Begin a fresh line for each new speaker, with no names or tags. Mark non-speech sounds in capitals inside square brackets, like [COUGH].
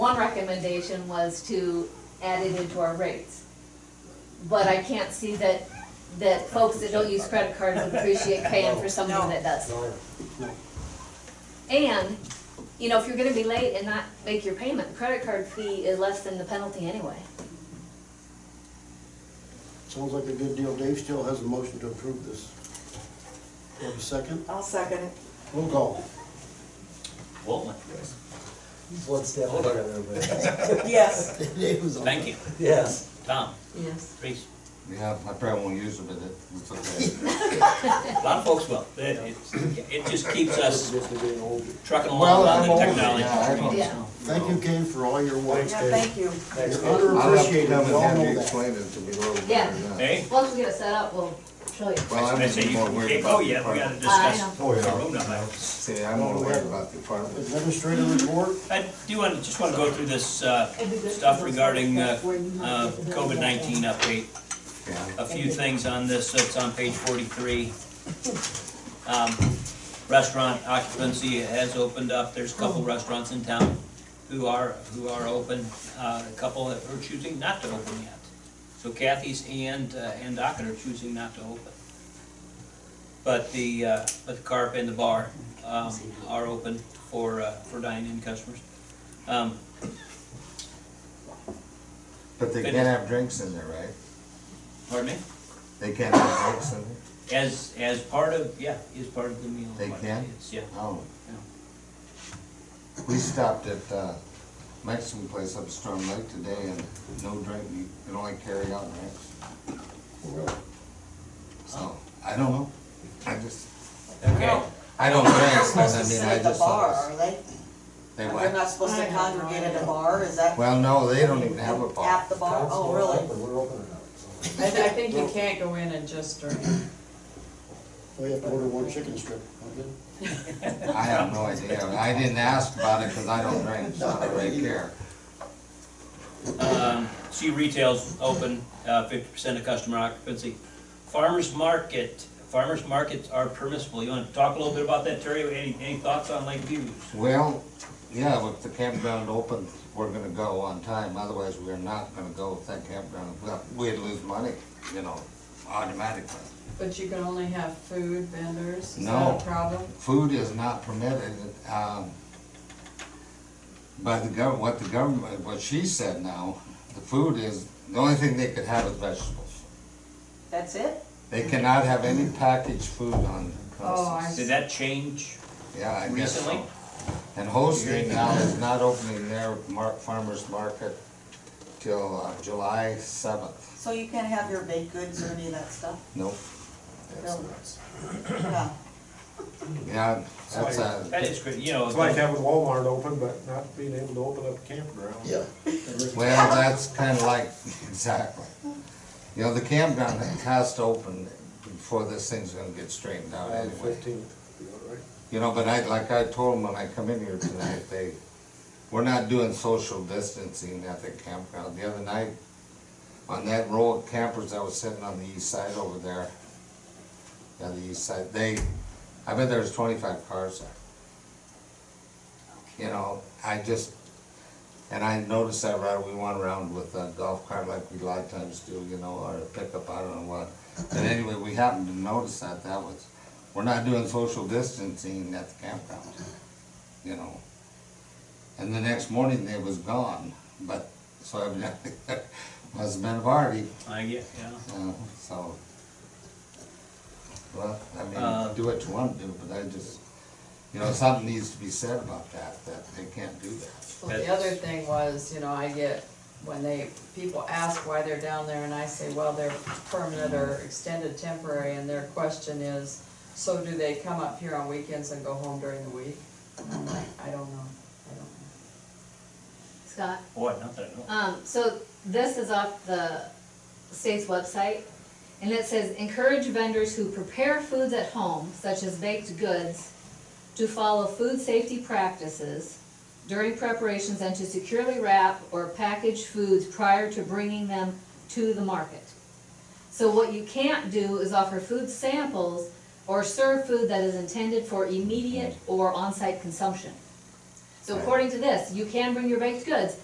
One recommendation was to add it into our rates. But I can't see that, that folks that don't use credit cards appreciate paying for something that does.
No, no.
And, you know, if you're gonna be late and not make your payment, the credit card fee is less than the penalty anyway.
Sounds like a good deal. Dave still has a motion to approve this. Do you have a second?
I'll second it.
Roll call.
Waltman.
One step ahead of everybody.
Yes.
Dave was on.
Thank you.
Yes,
Tom,
Yes.
Reese.
Yeah, I probably won't use it, but it- it's okay.
A lot of folks will. It, it's- it just keeps us
Just to be an old-
trucking
Well,
along on
I'm
the
old,
yeah, I don't-
technology.
Yeah.
Thank you, Kay, for all your work.
Yeah, thank you.
You're
thanks, Dave.
I'll have to
underappreciated, we
come and
all
have
know
you
that.
explain it to me a little
Yeah.
better. than that.
Hey?
Once we get it set up, we'll show you.
Well,
I say
I'm
you,
more worried
oh
about.
yeah, we
the
gotta
farm.
I
discuss
know.
Oh,
the
yeah.
road number.
See, I'm more worried about the farm.
Administrator
Mm-hmm.
report,
I do want, just wanna go through this, uh, stuff regarding, uh, uh, COVID nineteen update.
Yeah.
a few things on this, it's on page forty-three. Um, Restaurant occupancy has opened up, there's a couple restaurants in town who are, who are open, uh, a couple that are choosing not to open yet. So Kathy's and, uh, and Docket are choosing not to open. But the, uh, but the carp and the bar, um, are open for, uh, for dine-in customers. Um,
But they can't have drinks in there, right?
pardon me?
They can't have drinks in there?
As, as part of, yeah, is part of the meal.
They can?
Yeah.
Oh. We stopped at, uh, Mexican place up Storm Lake today and no drink, you can only carry out drinks. So, I don't know. I just,
Okay.
I
[LAUGHS]
don't drink, so
supposed to
I mean,
sit
I
at the
just
bar,
thought.
are they?
They
They're
went,
not supposed to congregate at a bar, is that
well, no, they don't even have a bar.
[LAUGHS] at the bar? Oh,
Council's
really?
open, We're open enough, so.
I, I think you can't go in and just drink.
we have to Oh, order one chicken strip, okay?
I have no idea. I didn't ask about it because I don't drink, so I don't really care.
Um, See retail's open, uh, fifty percent of customer occupancy. Farmers market, farmers markets are permissible. You want to talk a little bit about that, Terry? Any, any thoughts on Lake Views?
Well, yeah, with the campground open, we're gonna go on time, otherwise we're not gonna go with that campground. Well, We'd lose money, you know, automatically.
But you can only have food vendors, is
No.
that a problem?
Food is not permitted, um, by the gov, what the government, what she said now, the food is, the only thing they could have is vegetables.
That's it?
They cannot have any packaged food on the premises.
Oh, I
Did that change?
Yeah, I guess so.
Recently?
And hosting now is not opening their mar- farmer's market till uh, July seventh.
So you can't have your baked goods or any of that stuff?
Nope.
Really? Yeah.
Yeah, that's
That
a,
is great, you know.
It's like having Walmart open, but not being able to open up a campground.
Yeah.
well, that's kinda like, [LAUGHS] exactly. You know, the campground has to open before this thing's gonna get straightened out
On the
anyway.
fifteenth, right?
You know, but I, like I told them when I come in here tonight, they, we're not doing social distancing at the campground. The other night, on that row of campers that was sitting on the east side over there, on the east side, they, I bet there was twenty-five cars there. You know, I just, and I noticed that right, we went around with a golf cart like we a lot of times do, you know, or a pickup, I don't know what. But anyway, we happened to notice that, that was, we're not doing social distancing at the campground, you know. And the next morning, they was gone, but, so evidently, [LAUGHS] must have been a party,
I get, yeah.
uh, so. Well, I
Uh,
mean, do what you wanna do, but I just, you know, something needs to be said about that, that they can't do that.
Well, the other thing was, you know, I get, when they, people ask why they're down there, and I say, well, they're permanent or
Mm.
extended temporary, and their question is, so do they come up here on weekends and go home during the week? And I'm like, I don't know, I don't know.
Scott?
Boy, not that, no.
Um, so this is off the state's website, and it says encourage vendors who prepare foods at home, such as baked goods, to follow food safety practices during preparations and to securely wrap or package foods prior to bringing them to the market. So what you can't do is offer food samples or serve food that is intended for immediate or on-site consumption. So according to this, you can bring your baked goods,